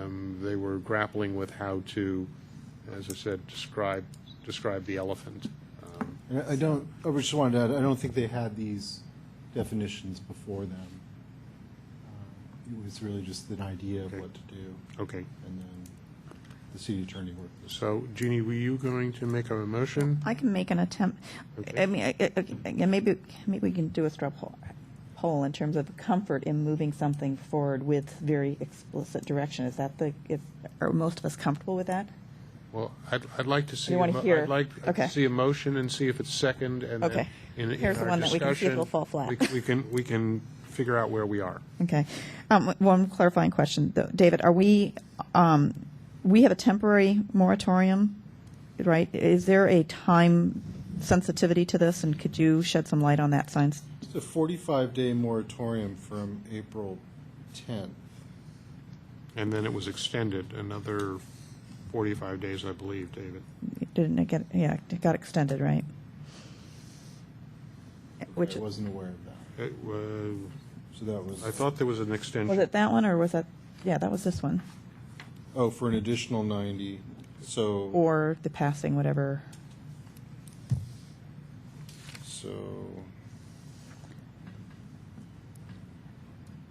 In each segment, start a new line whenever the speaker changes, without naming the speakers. Um, we're grappling with how to, as I said, describe, describe the elephant. Um,
And I I don't, I just wanted to add, I don't think they had these definitions before them. Uh, It was really just an idea of what to do,
Okay,
and then the city attorney worked this.
so Jeannie, were you going to make a motion?
I can make an attempt.
Okay.
I mean, I- I- again, maybe, maybe we can do a straw poll, poll in terms of comfort in moving something forward with very explicit direction. Is that the, if, are most of us comfortable with that?
Well, I'd, I'd like to see.
You
a
wanna
mo-
hear-
I'd like
okay.
to see a motion and see if it's second and then
Okay.
in, in our discussion.
Here's the one that we can see if it'll fall flat.
we- We can, we can figure out where we are.
Okay. Um, One clarifying question, though. David, are we, um, we have a temporary moratorium, right? Is there a time sensitivity to this, and could you shed some light on that, science?
It's a 45-day moratorium from April 10th.
And then it was extended another 45 days, I believe, David.
Didn't it get, yeah, it got extended, right? Which,
I wasn't aware of that.
It was,
So that was,
I thought there was an
was
extension.
it that one, or was that, yeah, that was this one?
oh, for an additional 90, so,
Or the passing, whatever.
so,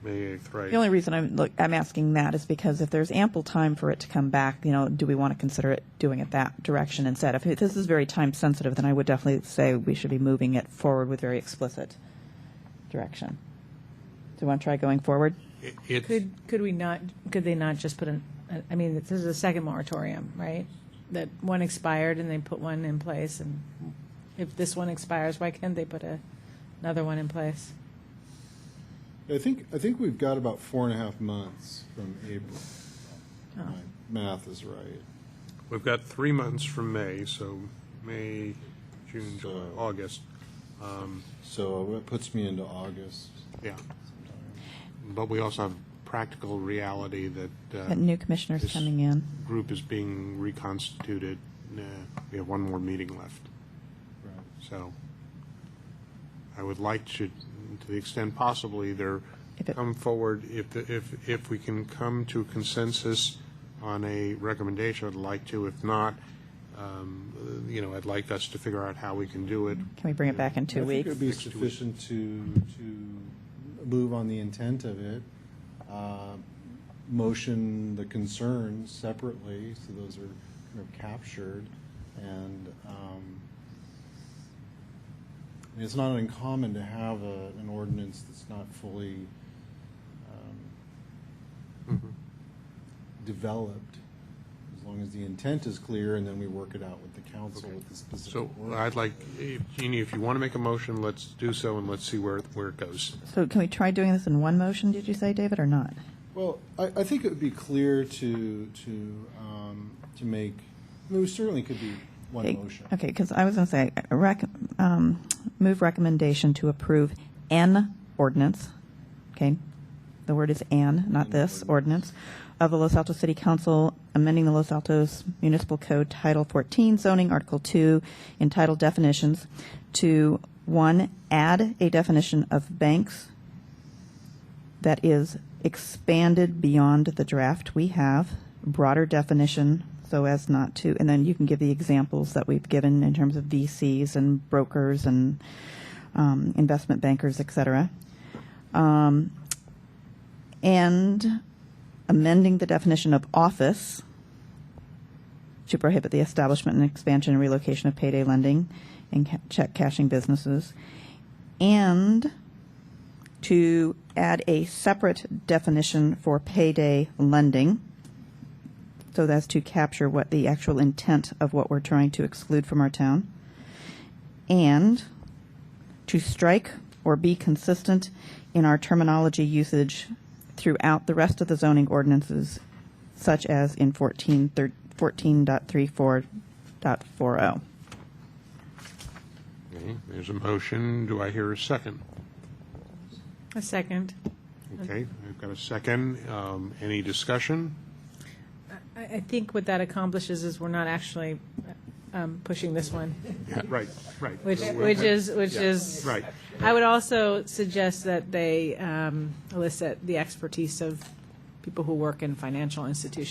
May 8th, right?
The only reason I'm, look, I'm asking that is because if there's ample time for it to come back, you know, do we want to consider it doing it that direction instead? If it- this is very time sensitive, then I would definitely say we should be moving it forward with very explicit direction. Do you want to try going forward?
It- it's-
Could, could we not, could they not just put an, I mean, this is a second moratorium, right? That one expired and they put one in place, and if this one expires, why can't they put a, another one in place?
I think, I think we've got about four and a half months from April.
Oh.
My math is right.
We've got three months from May, so May, June, July,
So-
August. Um,
So it puts me into August.
Yeah. But we also have practical reality that
That
uh,
new commissioner's
Yes.
coming in.
group is being reconstituted. Nah, We have one more meeting left.
Right.
So I would like to, to the extent possible, either
If it-
come forward, if, the- if, if we can come to consensus on a recommendation, I'd like to. If not, um, you know, I'd like us to figure out how we can do it.
Can we bring it back in two
I
weeks?
think it would be sufficient to, to move on the intent of it, uh, motion the concerns separately, so those are kind of captured, and, um, I mean, it's not uncommon to have a, an ordinance that's not fully um, developed, as long as the intent is clear, and then we work it out with the council with the specific.
So
ordinance.
I'd like, if- Jeannie, if you want to make a motion, let's do so and let's see where, where it goes.
So can we try doing this in one motion, did you say, David, or not?
Well, I, I think it would be clear to, to, um, to make, I mean, we certainly could be one motion.
Okay, because I was going to say, uh, rec, um, move recommendation to approve an ordinance, okay? The word is an, not
An
this,
ordinance.
ordinance, of the Los Altos City Council amending the Los Altos Municipal Code Title 14 zoning, Article 2, entitled definitions, to, one, add a definition of banks that is expanded beyond the draft we have, broader definition so as not to, and then you can give the examples that we've given in terms of VCs and brokers and um, investment bankers, et cetera. Um, and amending the definition of office to prohibit the establishment and expansion and relocation of payday lending and ca- check cashing businesses. And to add a separate definition for payday lending so that's to capture what the actual intent of what we're trying to exclude from our town and to strike or be consistent in our terminology usage throughout the rest of the zoning ordinances such as in 14 thir- 14.34.40
Okay, There's a motion. Do I hear a second?
A second.
Okay, I've got a second. Um, Any discussion?
I, I think what that accomplishes is we're not actually um, pushing this one,
Right, right.
which, which is, which is.
Right.
I would also suggest that they um, elicit the expertise of people who work in financial institutions